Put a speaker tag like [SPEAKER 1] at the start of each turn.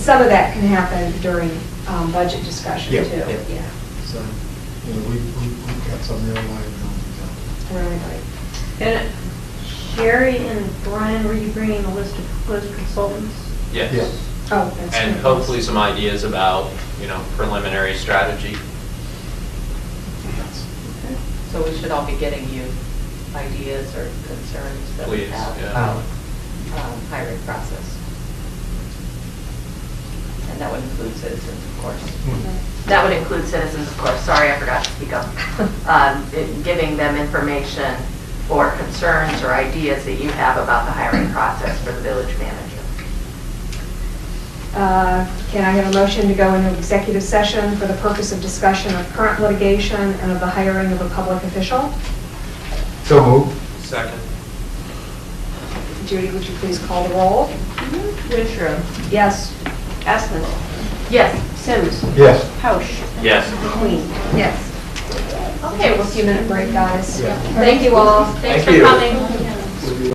[SPEAKER 1] Some of that can happen during um, budget discussion
[SPEAKER 2] Yeah,
[SPEAKER 1] too.
[SPEAKER 2] yeah.
[SPEAKER 1] Yeah,
[SPEAKER 2] So, you know, we, we, we've got some real liability down.
[SPEAKER 1] really, like,
[SPEAKER 3] And Sherry and Brian, were you bringing a list of proposed consultants?
[SPEAKER 2] Yeah.
[SPEAKER 4] Yes.
[SPEAKER 1] oh, that's.
[SPEAKER 4] And
[SPEAKER 1] good.
[SPEAKER 4] hopefully some ideas about, you know, preliminary strategy.
[SPEAKER 5] So we should all be getting you ideas or concerns that we
[SPEAKER 4] Please,
[SPEAKER 5] have
[SPEAKER 4] yeah.
[SPEAKER 5] about um, hiring process. And that would include citizens, of course.
[SPEAKER 6] That would include citizens, of course, sorry, I forgot to speak up. Um, it- Giving them information or concerns or ideas that you have about the hiring process for the village manager.
[SPEAKER 1] Uh, Can I have a motion to go into executive session for the purpose of discussion of current litigation and of the hiring of a public official?
[SPEAKER 2] So move.
[SPEAKER 4] Second.
[SPEAKER 1] Judy, would you please call the roll?
[SPEAKER 3] Wintrow,
[SPEAKER 1] Yes.
[SPEAKER 3] Asmus,
[SPEAKER 6] Yes,
[SPEAKER 3] Sims,
[SPEAKER 2] Yes.
[SPEAKER 3] Pausch,
[SPEAKER 4] Yes.
[SPEAKER 3] Queen.
[SPEAKER 1] Yes. Okay, we'll see you in a minute break, guys.
[SPEAKER 2] Yeah.
[SPEAKER 1] Thank you all.
[SPEAKER 6] thanks
[SPEAKER 4] Thank
[SPEAKER 6] for
[SPEAKER 4] you.
[SPEAKER 6] coming.